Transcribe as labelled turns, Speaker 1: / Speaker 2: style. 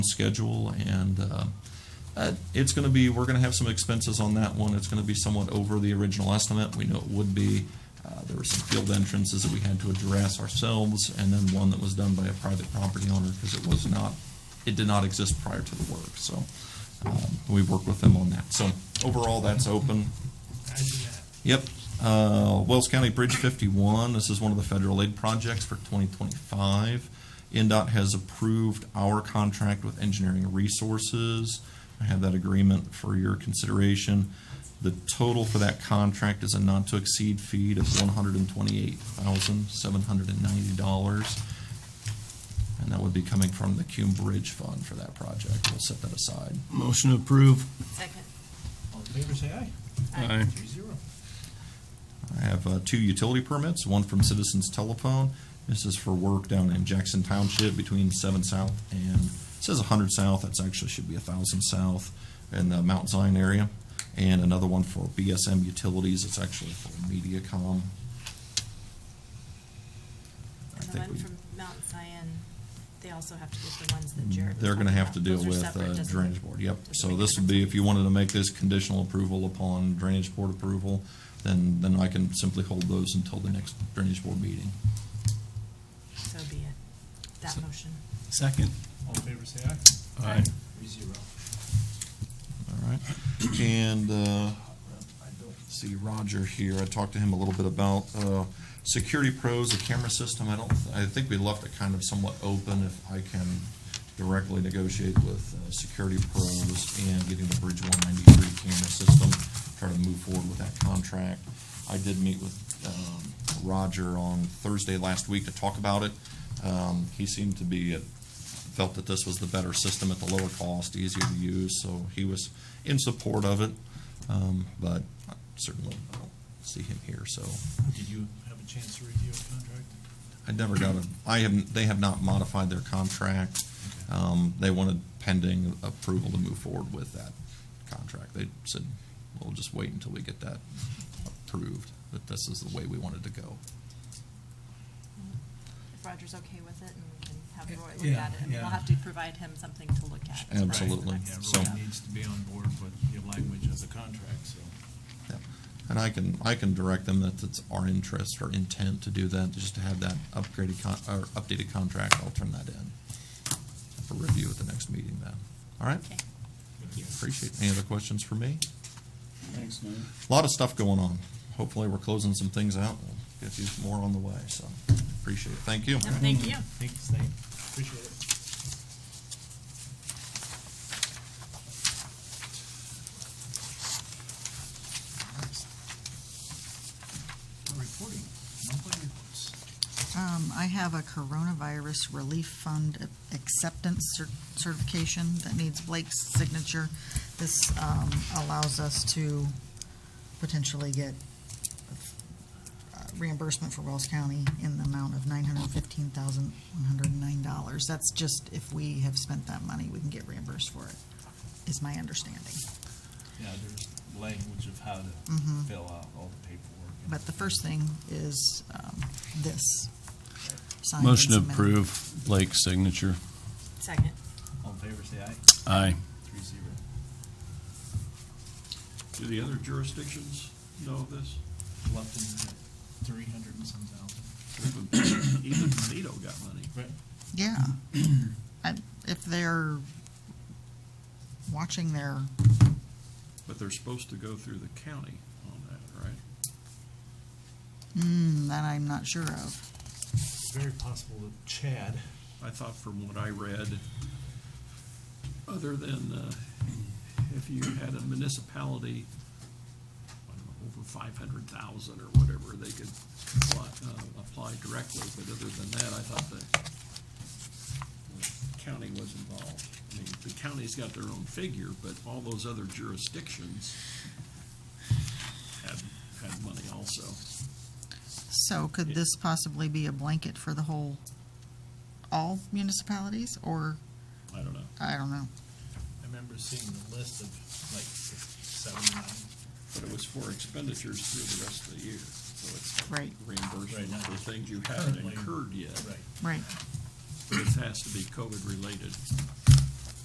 Speaker 1: schedule and uh, uh, it's going to be, we're going to have some expenses on that one. It's going to be somewhat over the original estimate. We know it would be. Uh, There were some field entrances that we had to address ourselves and then one that was done by a private property owner because it was not, it did not exist prior to the work. So um, we worked with them on that. So overall, that's open.
Speaker 2: I do that.
Speaker 1: Yep. Uh, Wells County Bridge 51, this is one of the federal aid projects for 2025. NDOT has approved our contract with Engineering Resources. I have that agreement for your consideration. The total for that contract is a not-to-exceed fee of $128,790. And that would be coming from the Cume Bridge Fund for that project. We'll set that aside.
Speaker 3: Motion to approve.
Speaker 4: Second.
Speaker 2: All in favor, say aye.
Speaker 3: Aye.
Speaker 2: Three zero.
Speaker 1: I have uh, two utility permits, one from Citizens Telephone. This is for work down in Jackson Township between 7 South and, it says 100 South, that's actually should be 1,000 South in the Mount Zion area. And another one for BSM Utilities, it's actually for MediaCom. I
Speaker 4: And the
Speaker 1: think
Speaker 4: one
Speaker 1: we-
Speaker 4: from Mount Zion, they also have to get the ones that Jared. was
Speaker 1: They're gonna
Speaker 4: talking
Speaker 1: have to
Speaker 4: about.
Speaker 1: deal
Speaker 4: Those are
Speaker 1: with
Speaker 4: separate,
Speaker 1: uh,
Speaker 4: doesn't-
Speaker 1: Drainage Board, yep.
Speaker 4: doesn't
Speaker 1: So
Speaker 4: make a
Speaker 1: this would be,
Speaker 4: difference.
Speaker 1: if you wanted to make this conditional approval upon Drainage Board approval, then, then I can simply hold those until the next Drainage Board meeting.
Speaker 4: So be it. That motion.
Speaker 3: Second.
Speaker 2: All in favor, say aye.
Speaker 3: Aye.
Speaker 2: Three zero.
Speaker 1: All right. And uh, see Roger here, I talked to him a little bit about uh, Security Pros, a camera system. I don't, I think we left it kind of somewhat open if I can directly negotiate with uh, Security Pros and getting the Bridge 193 camera system, try to move forward with that contract. I did meet with um, Roger on Thursday last week to talk about it. Um, He seemed to be at felt that this was the better system at the lower cost, easier to use, so he was in support of it. Um, But certainly, I don't see him here, so
Speaker 2: Did you have a chance to review a contract?
Speaker 1: I never got a, I haven't, they have not modified their contract. Um, They wanted pending approval to move forward with that contract. They said, we'll just wait until we get that approved, that this is the way we wanted to go.
Speaker 4: If Roger's okay with it and we can have Roy look
Speaker 2: Yeah,
Speaker 4: at it, and we'll
Speaker 2: yeah.
Speaker 4: have to provide him something to look at. for the
Speaker 1: Absolutely.
Speaker 4: next
Speaker 2: Yeah,
Speaker 1: So-
Speaker 4: step.
Speaker 2: Roy needs to be on board with the language of the contract, so.
Speaker 1: Yeah. And I can, I can direct them that it's our interest or intent to do that, just to have that upgraded con, or updated contract, I'll turn that in for review at the next meeting then. All right?
Speaker 4: Okay.
Speaker 1: Appreciate, it. any other questions for me?
Speaker 3: Thanks, Norm.
Speaker 1: A Lot of stuff going on. Hopefully, we're closing some things out, we'll get these more on the way, so appreciate it. Thank you.
Speaker 4: No, Thank you.
Speaker 2: Thanks, Nate. Appreciate it. Reporting, monthly reports.
Speaker 5: Um, I have a coronavirus relief fund acceptance cer- certification that needs Blake's signature. This, um, allows us to potentially get uh, reimbursement for Wells County in the amount of nine hundred fifteen thousand, one hundred and nine dollars. That's just if we have spent that money, we can get reimbursed for it, is my understanding.
Speaker 2: Yeah, there's language of how to
Speaker 5: Mhm.
Speaker 2: fill out all the paperwork. and-
Speaker 5: But the first thing is, um, this. Signed and
Speaker 3: Motion to
Speaker 5: submitted.
Speaker 3: approve Blake's signature.
Speaker 4: Second.
Speaker 2: All in favor, say aye.
Speaker 3: Aye.
Speaker 2: Three zero.
Speaker 6: Do the other jurisdictions know this?
Speaker 2: Lupton, three hundred and some thousand.
Speaker 6: Even Toledo got money.
Speaker 2: Right.
Speaker 5: Yeah. I- If they're watching their,
Speaker 6: But they're supposed to go through the county on that, right?
Speaker 5: mm, that I'm not sure of.
Speaker 2: Very possible that Chad,
Speaker 6: I thought from what I read, other than uh, if you had a municipality, I don't know, over five hundred thousand or whatever, they could apply, uh, apply directly, but other than that, I thought the the county was involved. I mean, the county's got their own figure, but all those other jurisdictions had, had money also.
Speaker 5: So could this possibly be a blanket for the whole, all municipalities, or,
Speaker 6: I don't know.
Speaker 5: I don't know.
Speaker 2: I remember seeing the list of like six, seven, nine.
Speaker 6: But it was for expenditures through the rest of the year, so it's not
Speaker 5: Right.
Speaker 2: Right,
Speaker 6: reimbursement
Speaker 2: not
Speaker 6: for things you haven't
Speaker 2: currently.
Speaker 6: incurred yet.
Speaker 2: Right.
Speaker 5: Right,
Speaker 6: But it has to be COVID-related.